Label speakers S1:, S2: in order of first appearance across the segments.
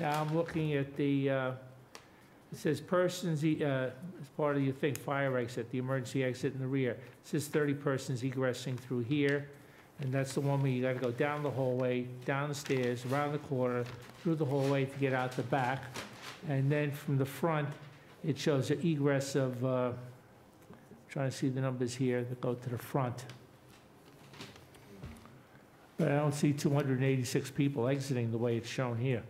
S1: Now I'm looking at the, uh, it says persons, e- uh, as part of your thing, fire exit, the emergency exit in the rear. It says 30 persons egressing through here, and that's the one where you gotta go down the hallway, down the stairs, around the corner, through the hallway to get out the back. And then from the front, it shows an egress of, uh, trying to see the numbers here that go to the front. But I don't see 286 people exiting the way it's shown here.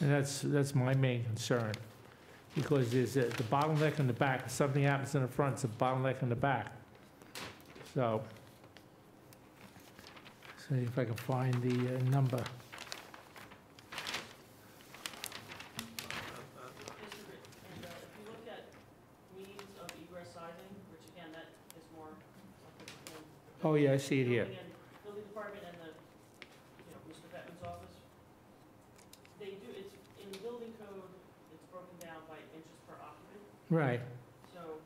S1: And that's, that's my main concern, because there's a- the bottleneck in the back, if something happens in the front, it's a bottleneck in the back. So, see if I can find the uh, number.
S2: Mr. Rich- and, uh, if you look at means of egress sizing, which again, that is more. something in the
S1: Oh, yeah, I see it here.
S2: building and- Building department and the, you know, Mr. Bettman's office. They do, it's, in the building code, it's broken down by inches per occupant,
S1: Right,
S2: so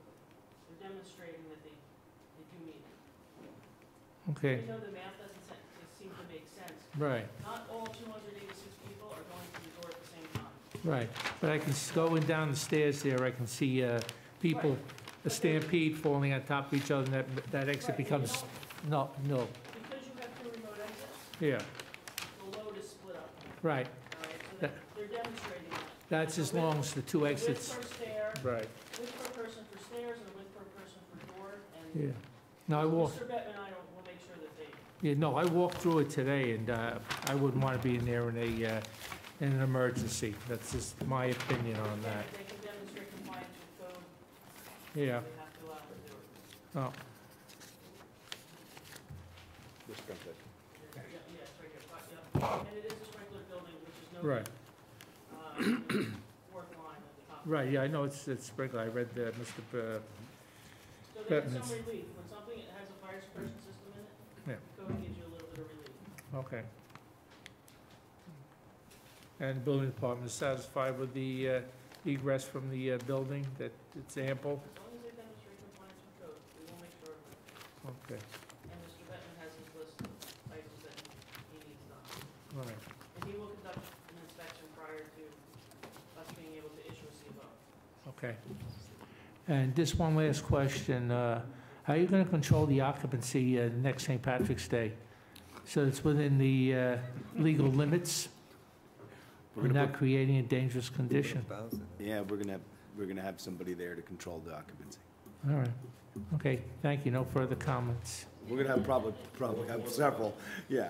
S2: they're demonstrating that they, they do mean it.
S1: okay,
S2: Even though the math doesn't se- it seem to make sense,
S1: right,
S2: not all two hundred eighty-six people are going to the door at the same time.
S1: right. But I can, s- going down the stairs there, I can see uh, people,
S2: Right.
S1: a stampede falling on top of each other, and that, that exit
S2: Right, you
S1: becomes, no,
S2: don't-
S1: no,
S2: Because you have two remote exits,
S1: yeah,
S2: the load is split up.
S1: right.
S2: Alright, so
S1: That-
S2: they're demonstrating that.
S1: That's as long as the two
S2: Width
S1: exits.
S2: per stair,
S1: Right.
S2: width per person for stairs and width per person for door, and
S1: Yeah. No, I walked,
S2: Mr. Bettman and I will, will make sure that they,
S1: yeah, no, I walked through it today, and uh, I wouldn't want to be in there in a, uh, in an emergency. That's just my opinion on that.
S2: they can demonstrate compliance with code,
S1: Yeah,
S2: they have to allow them to do it.
S1: oh,
S3: This comes in.
S2: Yeah, yeah, it's right here, but, yeah, and it is a sprinkler building, which is no, uh,
S1: right,
S2: fourth line at the top.
S1: right, yeah, I know it's, it's sprinkler. I read the, Mr., B-
S2: So they get
S1: Bettman's.
S2: some relief, when something has a fire suppression system in it,
S1: Yeah.
S2: the code gives you a little bit of relief.
S1: okay. And building department is satisfied with the uh, egress from the uh, building, that it's ample?
S2: As long as they demonstrate compliance with code, we will make sure.
S1: Okay,
S2: And Mr. Bettman has his list of items that he needs done.
S1: all right,
S2: And he will conduct an inspection prior to us being able to issue a CBO.
S1: okay. And just one last question, uh, how are you going to control the occupancy uh, next St. Patrick's Day? So it's within the uh, legal limits,
S3: We're gonna
S1: not creating a dangerous condition?
S3: Yeah, we're gonna, have we're gonna have somebody there to control the occupancy.
S1: All right, okay, thank you, no further comments.
S3: We're gonna have probably, probably have several,
S4: Uh,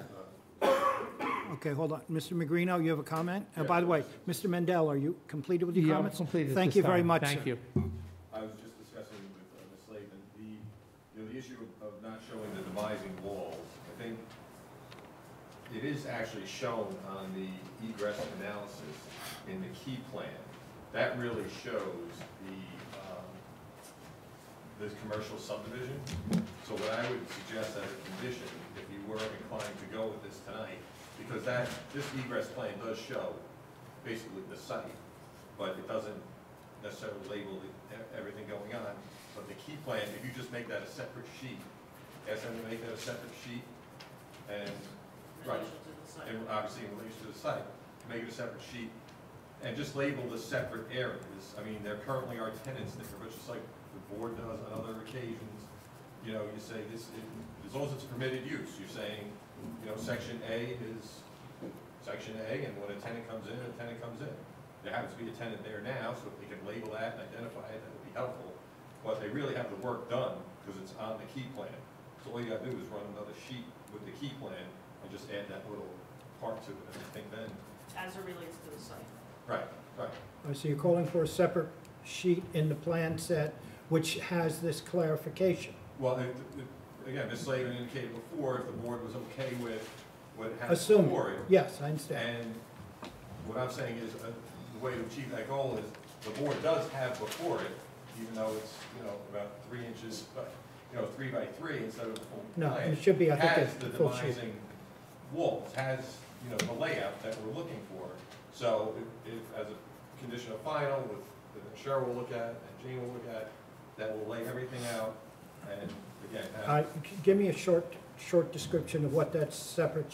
S3: yeah.
S5: Okay, hold on. Mr. Magrino, you have a comment? And by the way, Mr. Mendel, are you completed with your
S1: Yeah, I'm
S5: comments?
S1: uh, completed at
S5: Thank
S1: this
S5: you very
S1: time.
S5: much,
S1: Thank
S5: sir.
S1: you.
S4: I was just discussing with uh, Ms. Slavin, the, you know, the issue of not showing the demising wall, I think it is actually shown on the egress analysis in the key plan. That really shows the, um, the commercial subdivision. So what I would suggest as a condition, if you were inclined to go with this tonight, because that, this egress plan does show basically the site, but it doesn't necessarily label the- e- everything going on. But the key plan, if you just make that a separate sheet, ask them to make that a separate sheet, and,
S2: in
S4: right,
S2: relation to the site.
S4: and obviously in relation to the site, make it a separate sheet, and just label the separate areas. I mean, there currently are tenants there, but just like the board does on other occasions, you know, you say this, it- as long as it's permitted use, you're saying, you know, section A is section A, and when a tenant comes in, a tenant comes in. There happens to be a tenant there now, so if they can label that and identify it, that would be helpful. But they really have the work done, because it's on the key plan. So all you gotta do is run another sheet with the key plan and just add that little part to it, and I think then,
S2: As it relates to the site.
S4: right, right.
S5: Uh, So you're calling for a separate sheet in the plan set which has this clarification?
S4: Well, if, if, again, Ms. Slavin indicated before, if the board was okay with what happened
S5: Assume,
S4: before it,
S5: yes, I understand.
S4: And what I'm saying is, uh, the way to achieve that goal is, the board does have before it, even though it's, you know, about three inches, uh, you know, three by three instead of a full
S5: No,
S4: plan,
S5: it should be, I think,
S4: Has
S5: a
S4: the
S5: full sheet.
S4: demising walls, has, you know, the layout that we're looking for. So if, if, as a condition of final, with, that Cheryl will look at, and Jane will look at, that will lay everything out, and again, have.
S5: Uh, Give me a short, short description of what that separate